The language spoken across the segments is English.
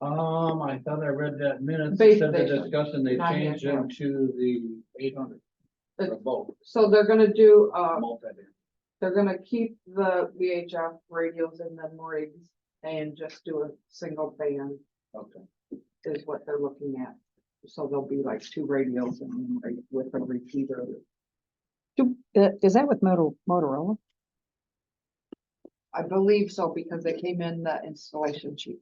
Um, I thought I read that minutes, Base it said the station, discussion, they not changed yet, them to the eight hundred. The- For both, So they're gonna do, uh, multi. they're gonna keep the VHF radios in the rigs and just do a single band okay. is what they're looking at. So there'll be like two radios and one re- with a repeater. Do, uh, is that with Moto- Motorola? I believe so because they came in the installation sheet,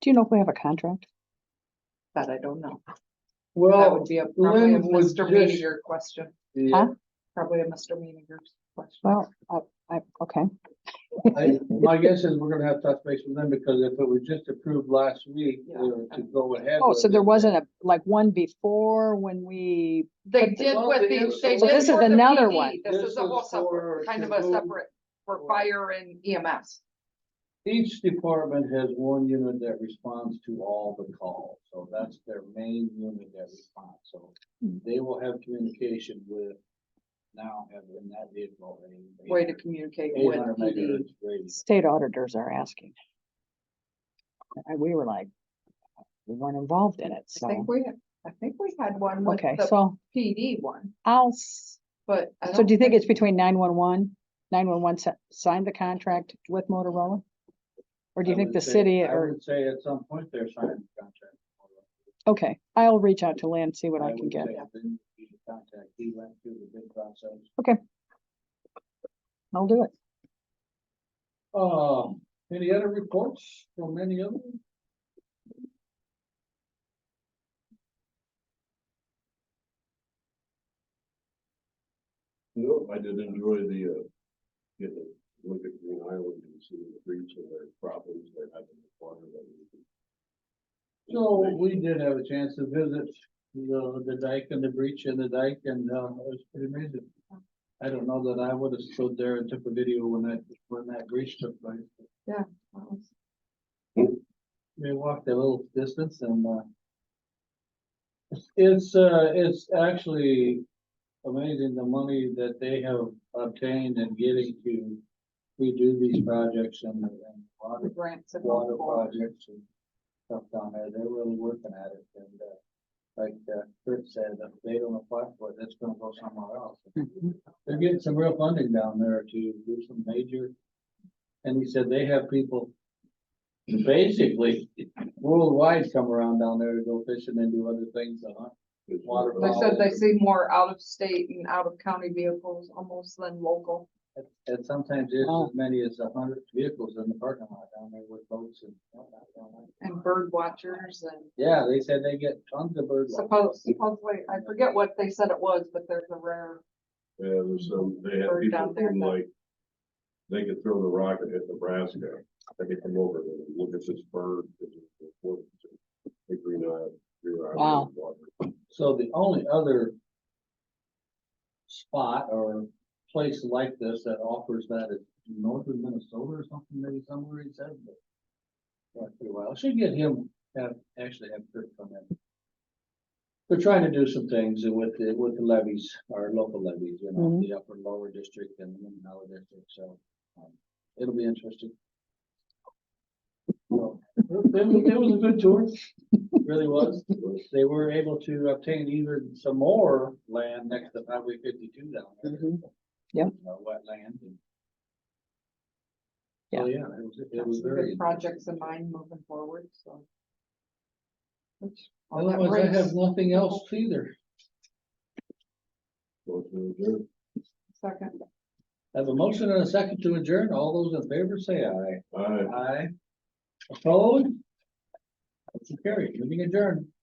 Do you know if we have a contract? but I don't know. That Well, would be a probably a Lynn was Mr. just- Meaninger question, yeah, probably a Mr. Meaninger question. Well, I, I, okay, I, my guess is we're gonna have touch base with them, because if it was just approved last week, Yeah. uh, to go ahead. oh, with so there it, wasn't a, like one before when we, They But- did Well, with they the, did- they did. so this is for the another PD. one. This This is a whole was for- separate, kind of a to move- separate for fire and E EMS. Each department has one unit that responds to all the calls, so that's their main unit that responds, so Hmm. they will have communication with now have in that vehicle. a Way to communicate with 800 PD. megahertz radio. state auditors are asking. And we were like, we weren't involved in it, I think so, we, I think we had one with okay, the so PD one, I'll, s- but. I so don't do you think it's between nine-one-one? Nine-one-one signed the contract with Motorola? Or do you I think would the say- city I or, would Say at some point they're signing the contract. okay, I'll reach out to Lynn, see what I can would get. say then he contact- He went through the bid process. I'll do it. Um, any other reports from any of them? No, I did enjoy the, uh, getting to look at Green Island and seeing the breach and their problems they're having with water. that we- So we did have a chance to visit the, the dike and the breach in the dike and, uh, it was pretty amazing. I don't know that I would have stood there and took a video when that, when that breach took place. We walked a little distance and, uh, it's, uh, it's actually amazing the money that they have obtained and getting to redo these projects and, and a lot The of grants and all water for projects and stuff down there, they're really working at it, and, uh, like, uh, Kurt said, if they don't apply for it, it's gonna go somewhere else. They're getting some real funding down there to do some major, and he said they have people basically worldwide come around down there to go fishing and do other things, uh, It's- Water They problem. said they see more out of state and out of county vehicles almost than local. and- and sometimes there's Wow. as many as a hundred vehicles in the parking lot down there with boats and. whatnot down there. and bird watchers and Yeah, they said they get tons of bird. watchers. suppose, supposedly, I forget what they said it was, but there's a rare. Yeah, there's some, they had Or down people there, from but- like, they could throw the rock and hit Nebraska. They could come over and look at this bird. and it's important to The Green Island. Green Island Wow. water. So the only other spot or place like this that offers that is northern Minnesota or something, maybe somewhere he said, but not for a while. I Should get him, have, actually have Kurt come in. We're trying to do some things with the, with the levies, our local levies, you know, Mhm. the upper and lower district and the middle and lower district, so. um, It'll be interesting. So, It was, it was a good tour, really was they were able to obtain even some more land next to Highway fifty-two down there. Mhm. Yep. You know, Wetland and. Yeah. So, Yeah, it was, it got was some good very. Projects in interesting. mind moving forward, so. Which- all that Otherwise, I brings- have nothing else either. Well, it's really good. Second, I Have a motion and a second to adjourn. All those in favor say aye. All right. Aye. Opposed? Motion carried. Meeting adjourned.